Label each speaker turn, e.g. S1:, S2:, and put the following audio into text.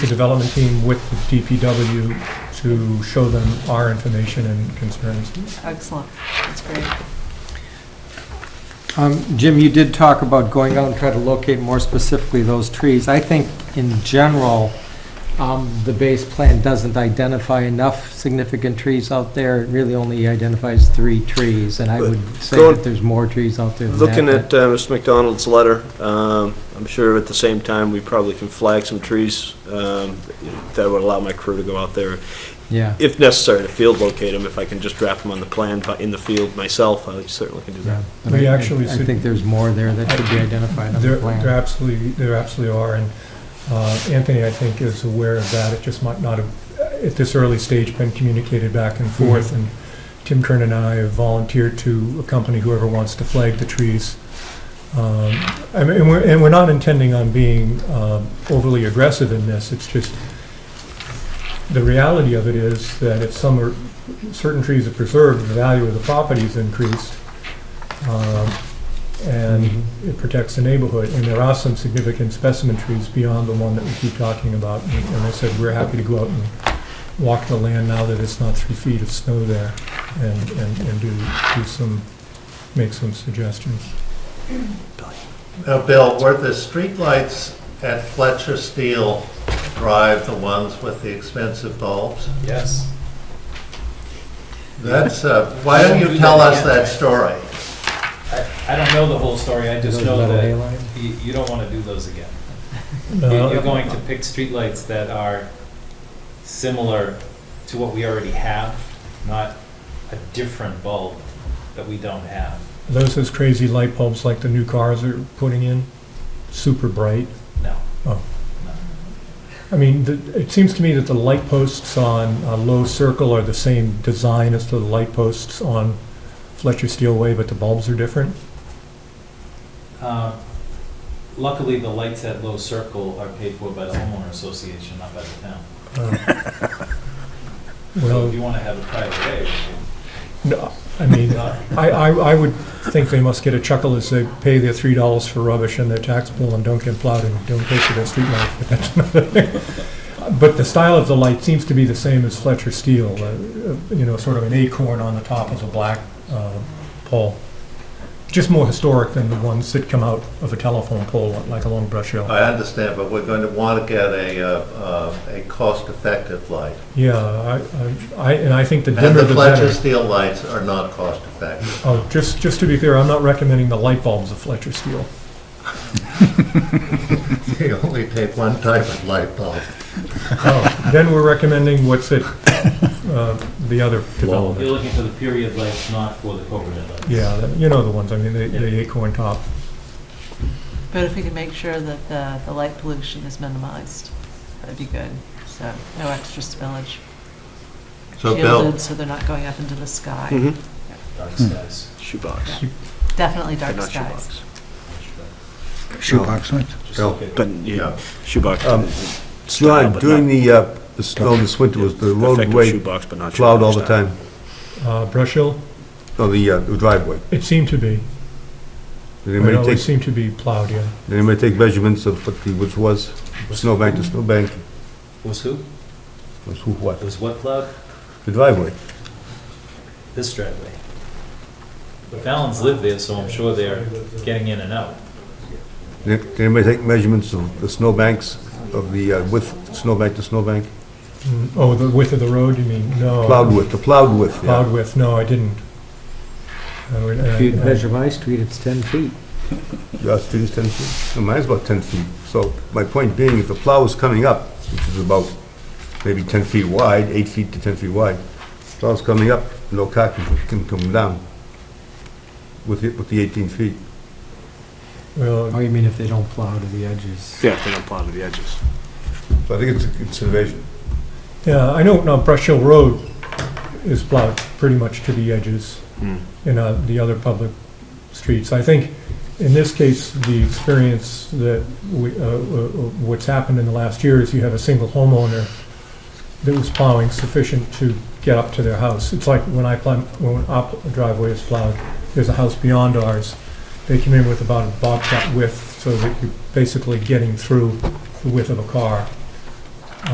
S1: the development team with the DPW to show them our information and concerns.
S2: Excellent, that's great.
S3: Um, Jim, you did talk about going out and try to locate more specifically those trees. I think in general, um, the base plan doesn't identify enough significant trees out there. It really only identifies three trees, and I would say
S4: Go-
S3: that there's more trees out there than that.
S4: Looking
S3: but-
S4: at uh, Mr. McDonald's letter, um, I'm sure at the same time, we probably can flag some trees um, that would allow my crew to go out there,
S3: Yeah,
S4: if necessary, to field locate them. If I can just draft them on the plan but in the field myself, I certainly can do
S3: yeah.
S4: that.
S3: But
S1: We
S3: I-
S1: actually
S3: I
S1: should-
S3: think there's more there that should be identified on
S1: There
S3: the
S1: there
S3: plan.
S1: absolutely, there absolutely are, and uh, Anthony, I think, is aware of that. It just might not have, at this early stage, been communicated back and forth, and Tim Kern and I have volunteered to accompany whoever wants to flag the trees. Um, I mean, And we're, and we're not intending on being um, overly aggressive in this, it's just, the reality of it is that if some are, certain trees are preserved, the value of the property is increased. Um, And
S3: Mhm.
S1: it protects the neighborhood, and there are some significant specimen trees beyond the one that we keep talking about. And and I said, we're happy to go out and walk the land now that it's not three feet of snow there and, and and do, do some, make some suggestions.
S5: Now, uh, Bill, were the streetlights at Fletcher Steel Drive the ones with the expensive bulbs?
S6: Yes.
S5: That's, uh, why don't you tell us that story?
S6: I, I don't know the whole story, I just
S3: Those
S6: know
S3: metal
S6: that
S3: halide?
S6: you, you don't want to do those again. You- You're
S1: Uh,
S6: going to pick streetlights that are similar to what we already have, not a different bulb that we don't have.
S1: Those, those crazy light bulbs like the new cars are putting in, super bright. Oh.
S6: No.
S1: I mean, the- it seems to me that the light posts on uh, Low Circle are the same design as the light posts on Fletcher Steel Way, but the bulbs are different.
S6: Uh, Luckily, the lights at Low Circle are paid for by the homeowner association, not by the town.
S1: Uh,
S6: So if
S1: Well,
S6: you want to have a private day,
S1: no, I mean,
S6: not
S1: I, I I would think they must get a chuckle as they pay their three dollars for rubbish in their tax bill and don't get plowed and don't pay for their street light, but that's another thing. But the style of the light seems to be the same as Fletcher Steel, uh, uh, you know, sort of an acorn on the top of a black uh, pole. Just more historic than the ones that come out of a telephone pole, like along Brush Hill.
S5: I understand, but we're going to want to get a, uh, uh, a cost-effective light.
S1: Yeah, I- I, I, and I think the
S5: And
S1: dimmer
S5: the
S1: the
S5: Fletcher
S1: better.
S5: Steel lights are not cost-effective.
S1: Oh, just, just to be clear, I'm not recommending the light bulbs of Fletcher Steel.
S5: They only take one type of light bulb.
S1: Oh, then we're recommending what's it, uh, the other
S6: you're
S1: development.
S6: looking for the period lights, not for the overhead lights.
S1: Yeah, that- you know the ones, I mean, the, the acorn top.
S2: But if we can make sure that the, the light pollution is minimized, that'd be good. So no extra spillage.
S5: So, Bill, Mm-hmm.
S2: Shielded, so they're not going up into the sky.
S4: Mhm.
S6: Dark skies.
S4: Shoebox,
S2: Definitely
S4: but
S2: dark
S4: not
S2: skies.
S4: shoebox.
S7: Shoebox, right?
S6: Just
S8: Bill.
S6: look at-
S4: But,
S5: Yeah.
S4: yeah, shoebox.
S8: Um,
S4: style,
S8: John,
S4: but
S8: during
S4: not-
S8: the, uh, the snow this winter, was the
S4: effective
S8: roadway
S4: shoebox, but not
S8: plowed all the
S4: shoebox style.
S8: time?
S1: Uh, Brush Hill,
S8: No, the uh, the driveway?
S1: it seemed to be,
S8: Did
S1: it
S8: anybody
S1: always
S8: take,
S1: seemed to be plowed, yeah.
S8: did anybody take measurements of what the, which was snowbank to snowbank?
S6: Was who?
S8: Was who, what?
S6: Was what cloud?
S8: The driveway?
S6: This driveway. The Fallons live there, so I'm sure they're getting in and out.
S8: Did did anybody take measurements of the snowbanks, of the uh, width, snowbank to snowbank?
S1: Mm, Oh, the width of the road, you mean? No.
S8: Plowed width, the plowed width, yeah.
S1: Oh. Plowed width, no, I didn't. I would-
S3: If you
S1: I- I-
S3: measure my street, it's 10 feet.
S8: Your street is 10 feet, and mine's about 10 feet. So my point being, if the plow is coming up, which is about maybe 10 feet wide, 8 feet to 10 feet wide, plow's coming up, no car can, can come down with the, with the 18 feet.
S1: Well,
S3: Oh, you mean if they don't plow to the edges?
S4: Yeah, if they don't plow to the edges.
S8: So I think it's a consideration.
S1: Yeah, I know, now Brush Hill Road is plowed pretty much to the edges
S4: Hmm.
S1: in uh, the other public streets. I think in this case, the experience that we, uh, uh, uh, what's happened in the last year is you have a single homeowner that was plowing sufficient to get up to their house. It's like when I plow, when our driveway is plowed, there's a house beyond ours. They came in with about a bobcat width, so that you're basically getting through the width of a car.